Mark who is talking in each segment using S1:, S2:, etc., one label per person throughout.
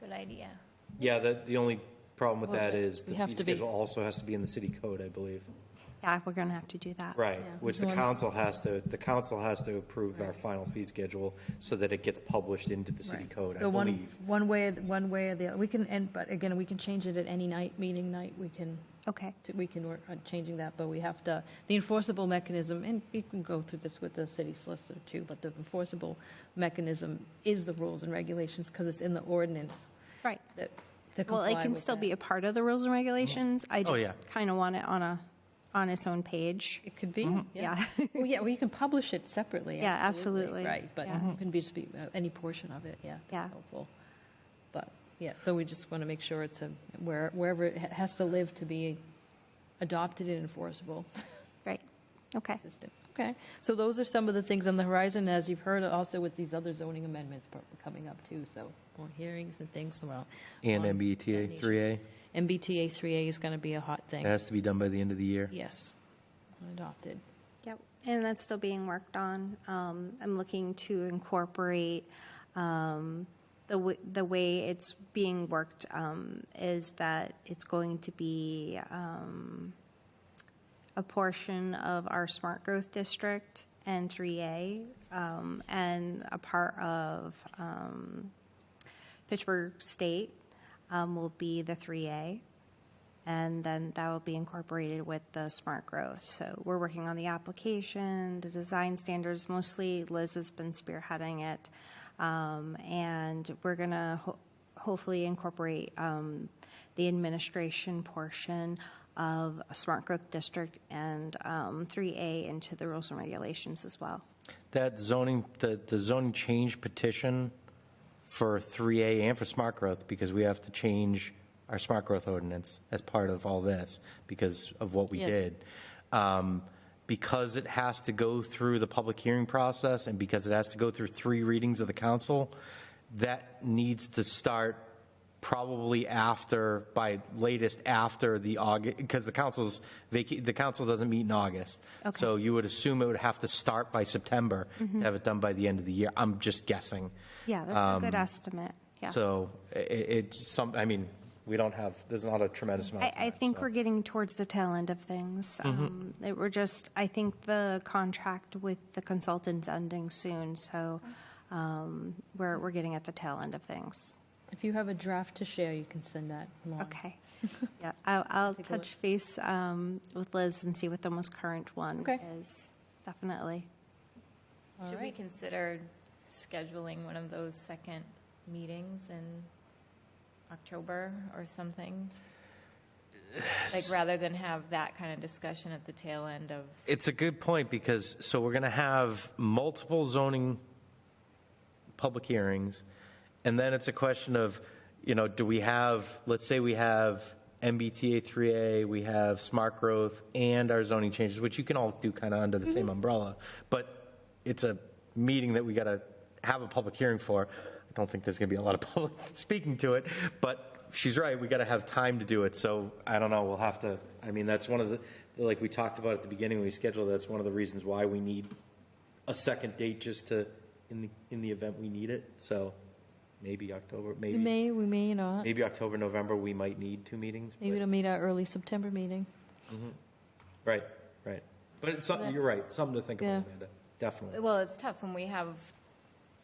S1: good idea.
S2: Yeah, the, the only problem with that is the
S3: We have
S2: fee
S3: to be-
S2: schedule also has to be in the city code, I believe.
S4: Yeah, we're going to have to do that.
S2: Right,
S3: Yeah.
S2: which the
S3: One-
S2: council has to, the council has to approve our final fee schedule so that it gets published into the city
S3: Right.
S2: code, I
S3: So one,
S2: believe.
S3: one way, one way or the other, we can, and, but again, we can change it at any night, meeting night, we can,
S4: Okay.
S3: we can work on changing that, but we have to, the enforceable mechanism, and you can go through this with the city solicitor too, but the enforceable mechanism is the rules and regulations, because it's in the ordinance
S4: Right.
S3: that, to
S4: Well,
S3: comply
S4: it can
S3: with
S4: still
S3: that. Mm-hmm. Oh,
S4: be a part of the rules and regulations. I just
S2: yeah.
S4: kind of want it on a, on its own page.
S3: It could be, yeah.
S4: Yeah.
S3: Well, yeah, well, you can publish it separately.
S4: Yeah, absolutely.
S3: Right, but
S4: Yeah.
S3: it can be just be uh, any portion of it, yeah.
S4: Yeah.
S3: Helpful. But, yeah, so we just want to make sure it's a, where- wherever it ha- has to live to be adopted and enforceable,
S4: Right. Okay.
S3: consistent. Okay, so those are some of the things on the horizon, as you've heard also with these other zoning amendments pro- coming up too, so more hearings and things around.
S2: And
S3: on
S2: MBTA
S3: that
S2: three A,
S3: nation. MBTA 3A is going to be a hot
S2: it
S3: thing.
S2: has to be done by the end of the year.
S3: Yes, adopted.
S4: Yep. And that's still being worked on. Um, I'm looking to incorporate um, the, w- the way it's being worked um, is that it's going to be um, a portion of our smart growth district and 3A um, and a part of um, Pittsburgh State um, will be the 3A. And then that will be incorporated with the smart growth. So we're working on the application, the design standards, mostly Liz has been spearheading it. Um, and we're going to ho- hopefully incorporate um, the administration portion of a smart growth district and um, 3A into the rules and regulations as well.
S2: That zoning, the, the zoning change petition for three A and for smart growth, because we have to change our smart growth ordinance as part of all this, because of what we
S3: Yes.
S2: did. Um, Because it has to go through the public hearing process, and because it has to go through three readings of the council, that needs to start probably after, by latest after the August, because the council's, vaca- the council doesn't meet in August. So you would assume it would have to start by September, to have it done by the end of the year. I'm just guessing.
S4: Yeah, that's a good estimate. Yeah.
S2: So i- i- it's some, I mean, we don't have, there's not a tremendous amount.
S4: I,
S2: of
S4: I
S2: time,
S4: think
S2: so.
S4: we're getting towards the tail end of things.
S3: Mm-hmm.
S4: Um, that We're just, I think the contract with the consultant's ending soon, so um, we're, we're getting at the tail end of things.
S3: If you have a draft to share, you can send that along.
S4: Okay. Yeah, I'll, I'll
S3: Take a look.
S4: touch base um, with Liz and see what the most current one
S3: Okay.
S4: is. Definitely.
S3: All
S1: Should we
S3: right.
S1: consider scheduling one of those second meetings in October or something? Like, rather than have that kind of discussion at the tail end of,
S2: It's a good point because, so we're going to have multiple zoning public hearings. And then it's a question of, you know, do we have, let's say we have MBTA 3A, we have smart growth and our zoning changes, which you can all do kind of under the same umbrella. But it's a meeting that we got to have a public hearing for. I don't think there's going to be a lot of public speaking to it, but she's right, we got to have time to do it. So I don't know, we'll have to, I mean, that's one of the, like we talked about at the beginning when we scheduled, that's one of the reasons why we need a second date just to, in the, in the event we need it. So maybe October,
S3: We
S2: maybe,
S3: may, we may not.
S2: maybe October, November, we might need two meetings. but-
S3: Maybe it'll meet our early September meeting.
S2: Right, right. But it's something, you're right, something to think
S3: Yeah.
S2: about, Amanda, definitely.
S1: well, it's tough when we have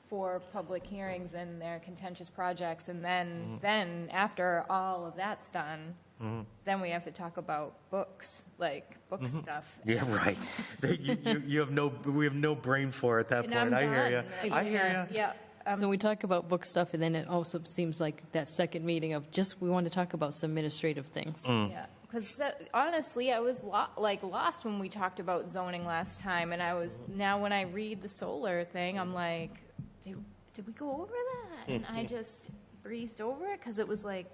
S1: four public hearings and they're contentious projects, and
S3: Mm-hmm.
S1: then, then after all of that's done, then we have to talk about books, like, book
S3: Mm-hmm.
S1: stuff.
S2: Yeah, right. You, you, you have no, we have no brain for it at that
S1: And I'm
S2: point. I hear
S1: done.
S2: you.
S1: Like,
S2: I hear
S3: yeah.
S2: you.
S1: Yeah, um,
S3: So we talk about book stuff, and then it also seems like that second meeting of just, we want to talk about some administrative things.
S1: Yeah, because honestly, I was lo- like lost when we talked about zoning last time, and I was now when I read the solar thing, I'm like, did, did we go over that? And I just breezed over it because it was like,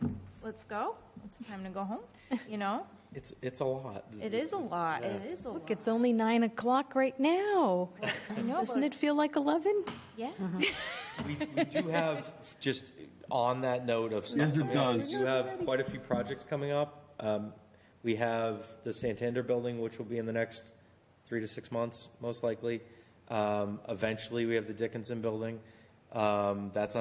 S1: let's go, it's time to go home. You know,
S2: It's, it's a lot.
S1: it is a lot. It is a lot.
S3: Look, it's only nine o'clock right now.
S1: I know,
S3: Doesn't
S1: but-
S3: it feel like 11?
S1: Yeah.
S2: We, we do have, just on that note of
S5: Yes,
S2: stuff
S5: it
S2: coming up, we
S5: does.
S2: do have quite a few projects coming up. Um, We have the Santander building, which will be in the next three to six months, most likely. Um, Eventually, we have the Dickinson building. Um, That's on